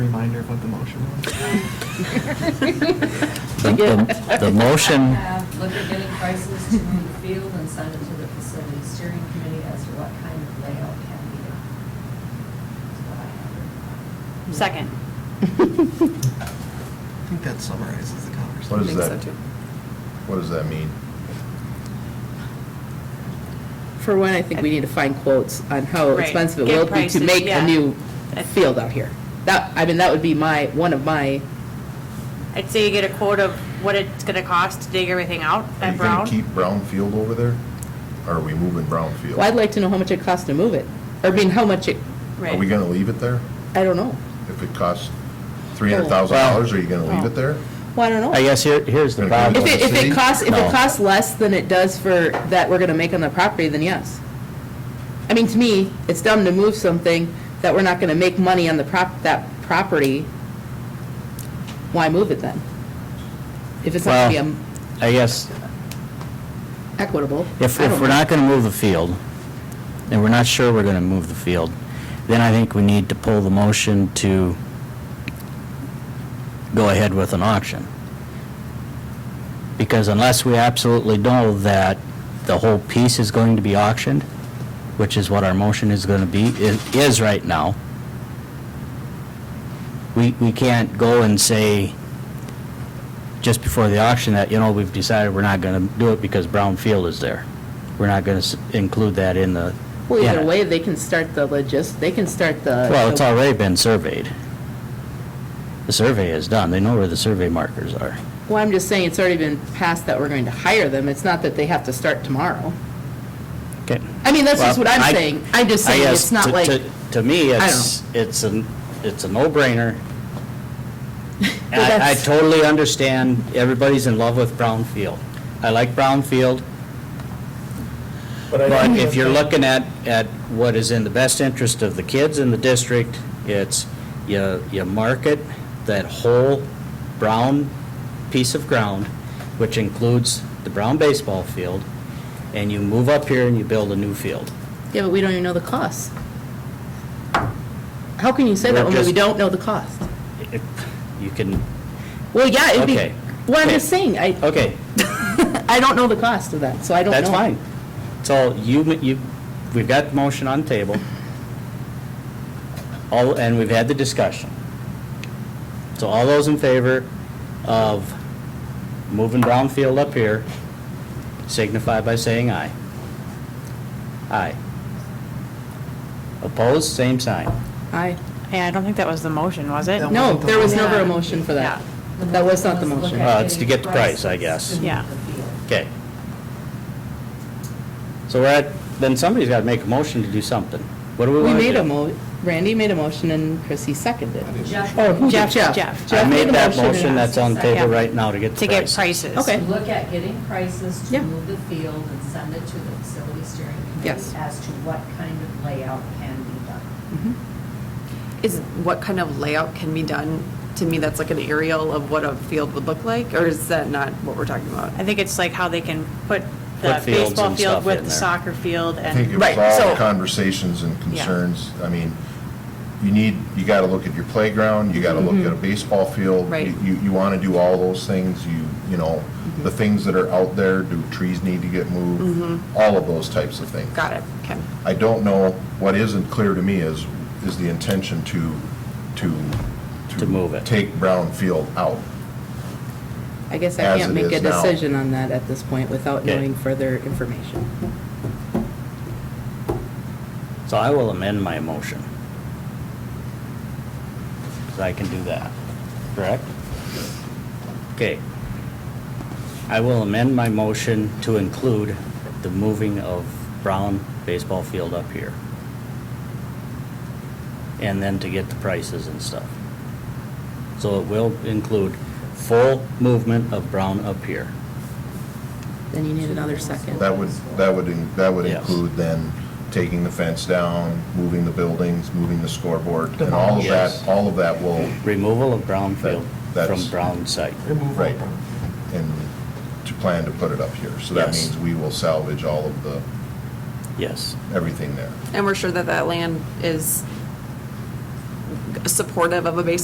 Reminder of what the motion was. The the- the motion, Have, Uh, look at getting prices to move the field and send it to the facility steering committee as to what kind of layout can be done. That's what I have. Second. I think that summarizes the conversation. What is think so, that? too. What does that mean? For one, I think we need to find quotes on how Right. expensive it Get will be to prices, make a yeah. new field out here. That, I mean, that would be my, one of my, I'd say you get a quote of what it's gonna cost to dig everything out Are at you going Brown. to keep Brownfield over there? Or are we moving Brownfield? well, I'd like to know how much it costs to move it. Or, I mean, how much it, Are we Right. going to leave it there? I don't know. If it costs $300,000, are you going to leave it there? Well, I don't know. I guess here, here's the problem. If it, if it costs, if No. it costs less than it does for, that we're gonna make on the property, then yes. I mean, to me, it's dumb to move something that we're not gonna make money on the prop, that property. Why move it then? If it's not gonna Well, be I guess, equitable. if, I if don't we're know. not going to move the field, and we're not sure we're going to move the field, then I think we need to pull the motion to go ahead with an auction. Because unless we absolutely know that the whole piece is going to be auctioned, which is what our motion is going to be, i- is right now, we, we can't go and say, just before the auction that, you know, we've decided we're not going to do it because Brownfield is there. We're not going to include that in the. Well, in either it. way, they can start the logis, they can start the. Well, it's already been surveyed. The survey is done. They know where the survey markers are. Well, I'm just saying, it's already been passed that we're going to hire them. It's not that they have to start tomorrow. Okay. I mean, that's just what Well, I'm I- saying. I'm just I saying, guess it's not to- like, to- To me, I don't it's, it's a, it's a no-brainer. But I, I that's- totally understand, everybody's in love with Brownfield. I like Brownfield. But if you're looking at, at what is in the best interest of the kids in the district, it's you, you market that whole brown piece of ground, which includes the brown baseball field, and you move up here and you build a new field. yeah, but we don't even know the cost. How can you say that We're when we just- don't know the cost? If You can, Well, yeah, it'd be, Okay. well, I'm Okay. just saying, I, okay, I don't know the cost of that, so I don't know. that's fine. So you, you, we've got the motion on the table. All, and we've had the discussion. So all those in favor of moving Brownfield up here signify by saying aye. Aye. Opposed, same sign. I, Yeah, I don't think that was the motion, was it? That no, wasn't the there was motion. never a motion for that. The That was not the look motion. at Well, Uh, it's to getting get the price, I prices guess. to move Yeah. the field. Okay. So we're at, then somebody's got to make a motion to do something. What do we We want to do? made a mo, Randy made a motion and Chrissy seconded. Jeff- Oh, who did Jeff, Jeff? Jeff. I Jeff made a that motion and motion I- that's on the table Yeah. right now to get To the get price. prices. Okay. To Look at getting prices Yeah. to move the field and send it to the facility steering committee Yes. as to what kind of layout can be done. Is, Is what kind of layout can be done? To me, that's like an aerial of what a field would look like, or is that not what we're talking about? I think it's like how they can put the Put fields baseball and field stuff with in the there. soccer field I think it and, was Right, all so- the conversations and concerns. I mean, you need, you got to look at your playground, you got to look Mm-hmm. at a baseball field. Right. You, you want to do all those things, you, you know, Mm-hmm. the things that are out there, do trees need to get moved? All of those types of things. Got it, okay. I don't know, what isn't clear to me is, is the intention to, to. To move it. Take Brownfield out. I guess I as can't it make a is now. decision on that at this point without Okay. knowing further information. So I will amend my motion. So I can do that, correct? Okay. I will amend my motion to include the moving of Brown baseball field up here. And then to get the prices and stuff. So it will include full movement of Brown up here. Then you need another second. That would, that would, in- that would Yes. include then taking the fence down, moving the buildings, moving the scoreboard, and all of Yes. that, all of that will, Removal of Brown field That- that's- from Brown site. Remove all Right. brown. and to plan to put it up here. So that Yes. means we will salvage all of the, Yes. everything there. And we're sure that that land is supportive of a baseball